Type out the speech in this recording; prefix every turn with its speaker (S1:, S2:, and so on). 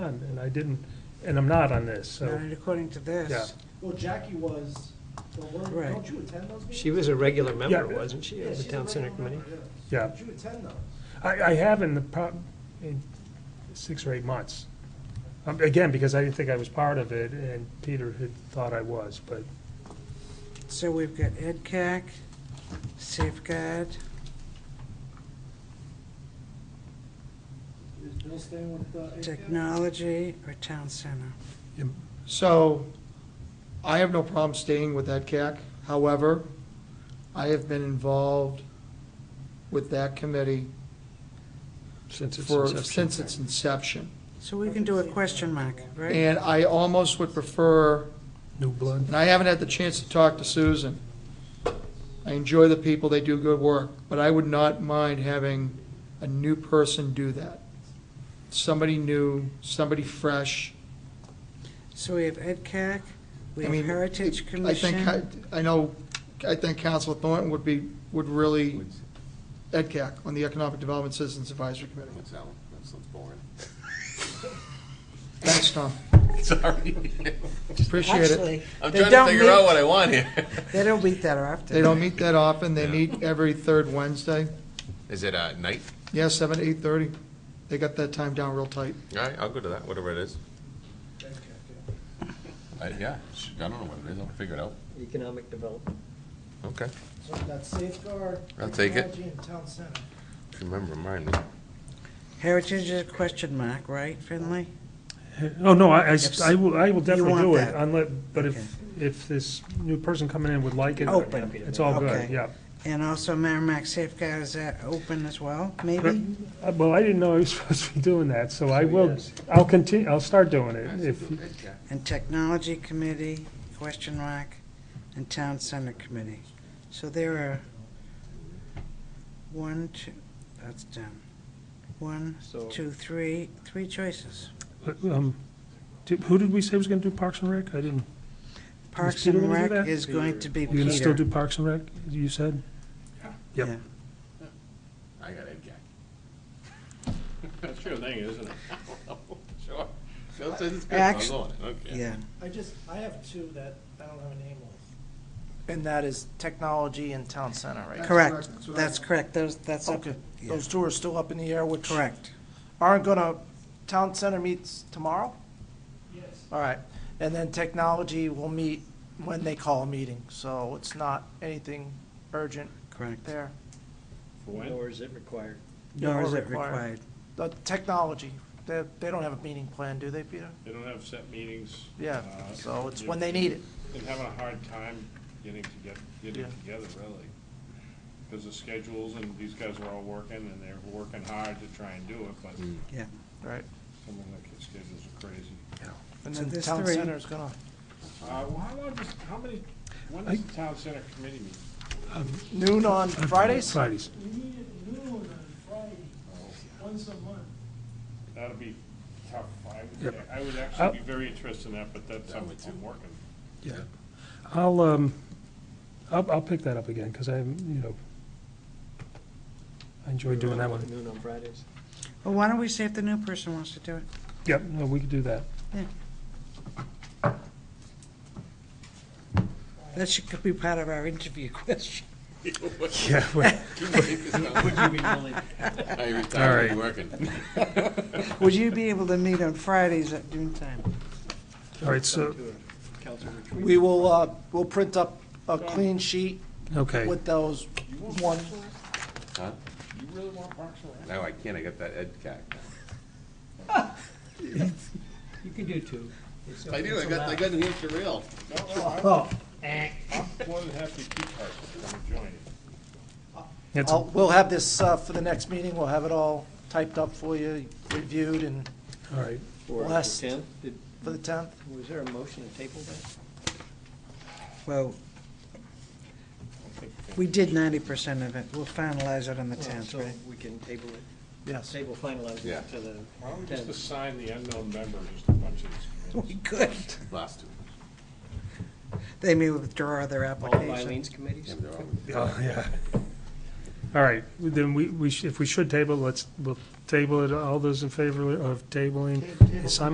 S1: done, and I didn't, and I'm not on this, so,
S2: Not according to
S1: yeah.
S2: this.
S3: Well, Jackie was, well, weren't-
S2: Right.
S3: don't you attend those meetings?
S4: She was a regular member,
S1: Yeah.
S4: wasn't she,
S3: Yeah,
S4: of the
S3: she's a
S4: town center
S3: regular
S4: committee?
S3: member,
S1: Yeah.
S3: Don't you attend those?
S1: I, I have in the, prob- in six or eight months. Um, Again, because I didn't think I was part of it, and Peter had thought I was, but,
S2: So we've got EdCAC, Safeguard,
S3: Is Bill staying with uh, the?
S2: Technology, or Town Center.
S5: So I have no problem staying with EdCAC. However, I have been involved with that committee
S4: Since its
S5: for,
S4: inception.
S5: since its inception.
S2: So we can do a question mark, right?
S5: And I almost would prefer,
S1: new blood.
S5: and I haven't had the chance to talk to Susan. I enjoy the people, they do good work, but I would not mind having a new person do that. Somebody new, somebody fresh.
S2: So we have EdCAC, we
S5: I
S2: have
S5: mean,
S2: Heritage
S5: I think, I
S2: Commission.
S5: I know, I think Council Thornton would be, would really, EdCAC, on the Economic Development Citizens Advisory Committee.
S6: What's that one? That sounds boring.
S5: Thanks, Tom.
S6: Sorry.
S5: Appreciate it.
S2: Actually,
S6: I'm
S2: They
S6: trying to
S2: don't
S6: figure out
S2: meet-
S6: what I want here.
S2: they don't meet that often.
S5: They don't meet that often. They meet every third Wednesday.
S6: Is it uh, night?
S5: Yeah, seven to eight-thirty. They got that time down real tight.
S6: All right, I'll go to that, whatever it is. I- Uh, Yeah, sh- I don't know what it is. I'll figure it out.
S4: Economic development.
S6: Okay.
S3: So we've got Safeguard.
S6: I'll take it.
S3: Technology and Town Center.
S6: Remember, remind me.
S2: Heritage is a question mark, right, Finley?
S1: Oh, no, I, I s-
S2: Yes.
S1: I will, I will definitely
S2: want
S1: do it,
S2: that.
S1: unless, but if, if this new person coming in would like it,
S2: Open.
S1: it's all good,
S2: Okay.
S1: yeah.
S2: And also Merrimack Safeguard, is that open as well, maybe?
S1: Uh, Well, I didn't know I was supposed to be doing that, so I will, I'll continue, I'll start doing it, if,
S2: And Technology Committee, question mark, and Town Center Committee. So there are one, two, that's done. One,
S4: So-
S2: two, three, three choices.
S1: um, did- who did we say was gonna do Parks and Rec? I didn't,
S2: Parks
S1: Peter
S2: and
S1: gonna do
S2: Rec
S1: that?
S2: is going to be
S1: you're gonna still
S2: Peter.
S1: do Parks and Rec, you said? Yep.
S2: Yeah.
S6: I got Ed Gack.
S7: That's your thing, isn't it?
S6: Sure. Phil says it's good.
S2: Act-
S6: I'll go on it. Okay.
S2: Yeah,
S3: I just, I have two that I don't have a name with. And that is Technology and Town Center, right?
S2: correct.
S5: correct. That's what I-
S2: That's correct. Those, that's up-
S3: Okay,
S2: yeah.
S3: those two are still up in the air, which.
S2: correct.
S3: aren't gonna, Town Center meets tomorrow? Yes. All right, and then Technology will meet when they call a meeting, so it's not anything urgent
S2: Correct.
S3: there.
S7: For when?
S4: is it required.
S2: Nor
S3: Nor
S2: is it
S3: required.
S2: required.
S3: The Technology, they, they don't have a meeting plan, do they, Peter?
S7: They don't have set meetings.
S3: Yeah,
S7: uh,
S3: so it's
S7: you-
S3: when they need it.
S7: They're having a hard time getting to get, getting
S3: Yeah.
S7: together, really. Because of schedules and these guys are all working and they're working hard to try and do it, but some
S2: Yeah.
S3: Right.
S7: of the kids' schedules are crazy.
S3: And
S2: So
S3: then
S2: there's
S3: Town
S2: three.
S3: Center's gonna,
S7: Uh, well, how long does, how many, when does the town center committee meet?
S3: noon on Fridays?
S1: Fridays.
S7: That'll Oh. be tough. I would,
S1: Yep.
S7: I would
S1: I'll-
S7: actually
S3: Uh,
S7: be very interested in that, but that's something I'm working.
S1: Yeah, I'll, um, I'll, I'll pick that up again, because I, you know, I enjoy doing that one.
S4: Noon on Fridays.
S2: Well, why don't we see if the new person wants to do it?
S1: Yep, no, we could do that.
S2: That should could be part of our interview question.
S1: Yeah, well,
S6: I
S1: All right.
S6: retired, I'm working.
S2: Would you be able to meet on Fridays at noontime?
S1: all right, so,
S3: We will, uh, we'll print up a clean sheet
S1: okay,
S3: with those one,
S6: Huh?
S7: You really want Parks and Rec?
S6: No, I can't. I got that Ed Gack.
S4: You could do two. It's-
S6: I do.
S4: it's
S6: I got, I
S4: allowed.
S6: got New Hampshire Rail.
S2: Oh.
S7: I'm more than happy to keep Parks and Rec. I'm joining.
S1: it's,
S3: I'll-
S1: all
S3: we'll have this, uh, for the next meeting, we'll have it all typed up for you, reviewed and
S1: right.
S4: Or
S3: Last-
S4: the 10th. Did-
S3: for the tenth.
S4: Was there a motion to table that?
S2: Well, we did ninety percent of it. We'll finalize it on the tenth,
S4: Uh, So
S2: right?
S4: we can table it,
S3: Yes.
S4: table finalize
S6: Yeah.
S4: it to the
S7: Why don't we just
S4: 10th.
S7: assign the unknown member just a bunch of these committees?
S2: We could.
S6: Last two.
S2: They may withdraw their
S4: All of
S2: application.
S4: Eileen's committees?
S6: Yeah, they're all-
S1: Oh, yeah. All right, then we, we, sh- if we should table, let's, we'll table it. All those in favor of tabling, Simon